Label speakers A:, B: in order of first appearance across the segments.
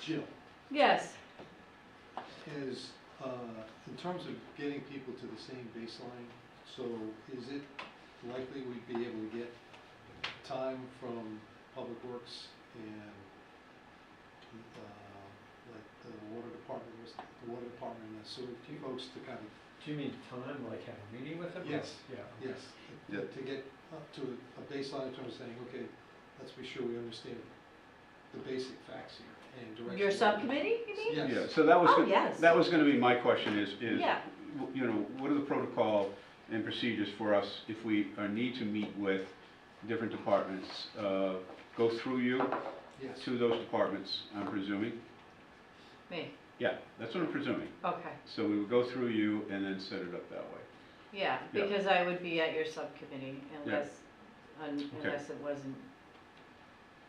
A: Jill,
B: Yes,
A: is, uh, in terms of getting people to the same baseline, so is it likely we'd be able to get time from Public Works and, uh, like the water department, was- the water department and the sewer folks to kind of,
C: Do you mean time, like have a meeting with them?
A: Yes.
C: Yeah.
A: yes,
D: Yeah.
A: to get up to a baseline in terms of saying, okay, let's be sure we understand the basic facts here and direction.
B: your subcommittee, you mean?
A: Yes.
D: Yeah, so that was,
B: Oh,
D: go-
B: yes.
D: that was gonna be my question is, is,
B: Yeah.
D: w- you know, what are the protocol and procedures for us if we uh, need to meet with different departments? Uh, Go through you
A: Yes.
D: to those departments, I'm presuming?
B: Me,
D: Yeah, that's what I'm presuming.
B: okay,
D: So we would go through you and then set it up that way.
B: yeah,
D: Yeah.
B: because I would be at your subcommittee unless, un-
D: Okay.
B: unless it wasn't,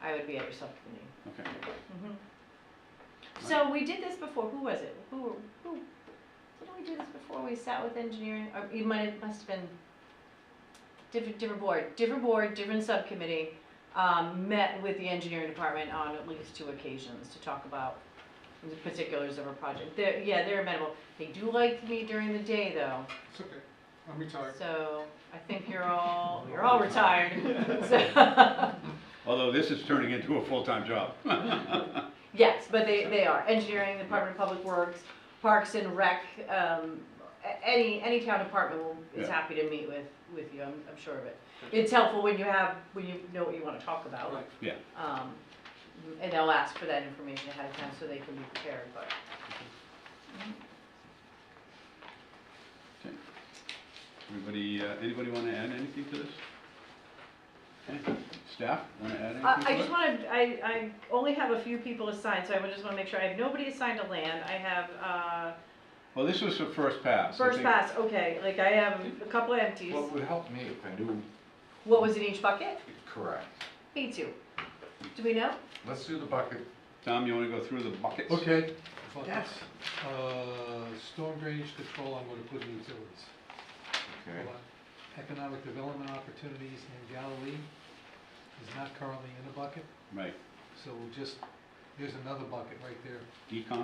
B: I would be at your subcommittee.
D: Okay.
B: Mhm. So we did this before, who was it? Who, were- who, didn't we do this before we sat with engineering, or it might, it must have been different, different board, different board, different subcommittee, um, met with the engineering department on at least two occasions to talk about the particulars of a project. They're, yeah, they're amenable. They do like to meet during the day though,
A: It's okay, I'm retired.
B: so I think you're all, you're all retired. So-
D: Although this is turning into a full-time job.
B: Yes, but they, they are, engineering, Department of Public Works, Parks and Rec, um, a- any, any town department will, is
D: Yeah.
B: happy to meet with, with you, I'm, I'm sure of it. It's helpful when you have, when you know what you wanna talk about,
A: Right.
B: um, and they'll ask for that information ahead of time so they can be prepared, but.
D: Everybody, uh, anybody wanna add anything to this? Okay. Staff, wanna add
B: Uh, I,
D: anything
B: I
D: to
B: just
D: it?
B: wanna, I, I only have a few people assigned, so I would just wanna make sure, I have nobody assigned to land, I have, uh,
D: Well, this was for first pass. I
B: first
D: think
B: pass, okay, like I have a couple empties,
E: What would help me if I knew
B: what was in each bucket?
E: it correct?
B: Me too. Do we know?
E: Let's do the bucket.
D: Tom, you wanna go through the buckets?
E: Okay.
A: Yes. Uh, storm drainage control, I'm gonna put in utilities.
E: Okay,
A: Economic development opportunities in Galilee is not currently in a bucket,
D: Right,
A: so we'll just, there's another bucket right there,
D: econ?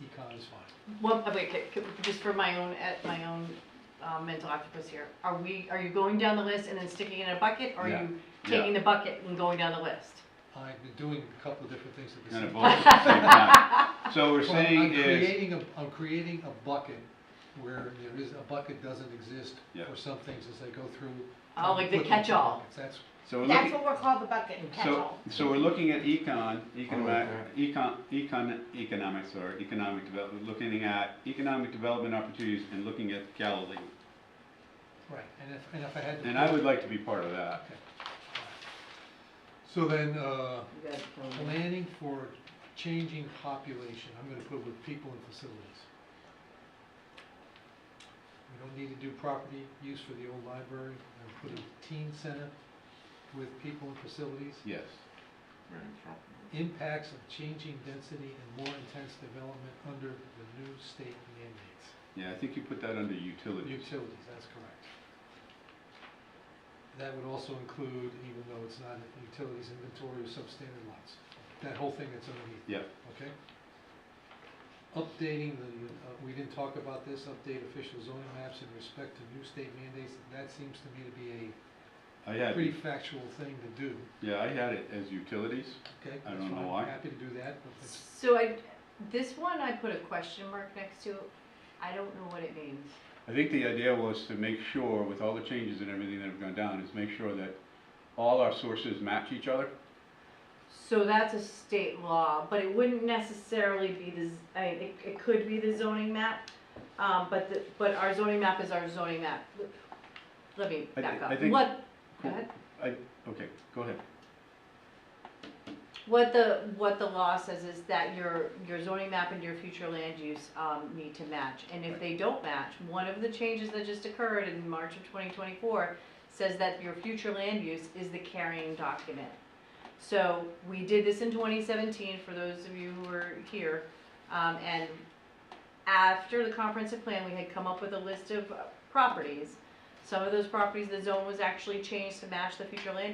A: econ is fine.
B: Well, uh, wait, c- c- just for my own, at my own uh, mental octopus here, are we, are you going down the list and then sticking it in a bucket? Or are
D: Yeah,
B: you taking the bucket and going down the list?
A: I've been doing a couple of different things at the
D: Kind
A: same
D: of
A: time.
D: both at the same time. So we're
A: So I'm-
D: saying
A: I'm
D: is,
A: creating a, I'm creating a bucket where there is, a bucket doesn't exist
D: Yeah.
A: for some things as I go through.
B: Oh, like the
A: Put them in
B: catch-all.
A: buckets. That's,
D: so we're
F: That's
D: looking,
F: what we're called, the bucket and
D: so,
F: catch-all.
D: so we're looking at econ, economic,
E: okay.
D: econ, econ, economics or economic development, looking at economic development opportunities and looking at Galilee.
A: right, and if, and if I had to.
D: And I
A: put-
D: would like to be part of that.
A: So then, uh,
B: You guys can-
A: Planning for changing population, I'm gonna put with people and facilities. We don't need to do property use for the old library, I'm gonna put a teen center with people and facilities.
D: Yes.
E: very true.
A: Impacts of changing density and more intense development under the new state mandates.
D: Yeah, I think you put that under utilities.
A: Utilities, that's correct. That would also include, even though it's not in utilities inventory or substandard lots, that whole thing that's underneath.
D: Yeah,
A: Okay. Updating the, uh, we didn't talk about this, update official zoning maps in respect to new state mandates, that seems to me to be
D: I
A: a
D: had,
A: pretty factual thing to do,
D: yeah, I had it as utilities.
A: okay?
D: I
A: that's
D: don't know
A: fine,
D: why.
A: Happy to do that, but it's-
B: So I, this one I put a question mark next to, I don't know what it means.
D: I think the idea was to make sure, with all the changes and everything that have gone down, is make sure that all our sources match each other.
B: So that's a state law, but it wouldn't necessarily be the, z- I mean, it, it could be the zoning map, um, but the, but our zoning map is our zoning map. Let me
D: I thi-
B: back
D: I
B: up.
D: think-
B: What, go ahead.
D: I, okay, go ahead.
B: What the, what the law says is that your, your zoning map and your future land use, um, need to match, and if
D: Right.
B: they don't match, one of the changes that just occurred in March of twenty twenty-four says that your future land use is the carrying document. So, we did this in twenty seventeen, for those of you who were here, um, and after the comprehensive plan, we had come up with a list of uh, properties. Some of those properties, the zone was actually changed to match the future land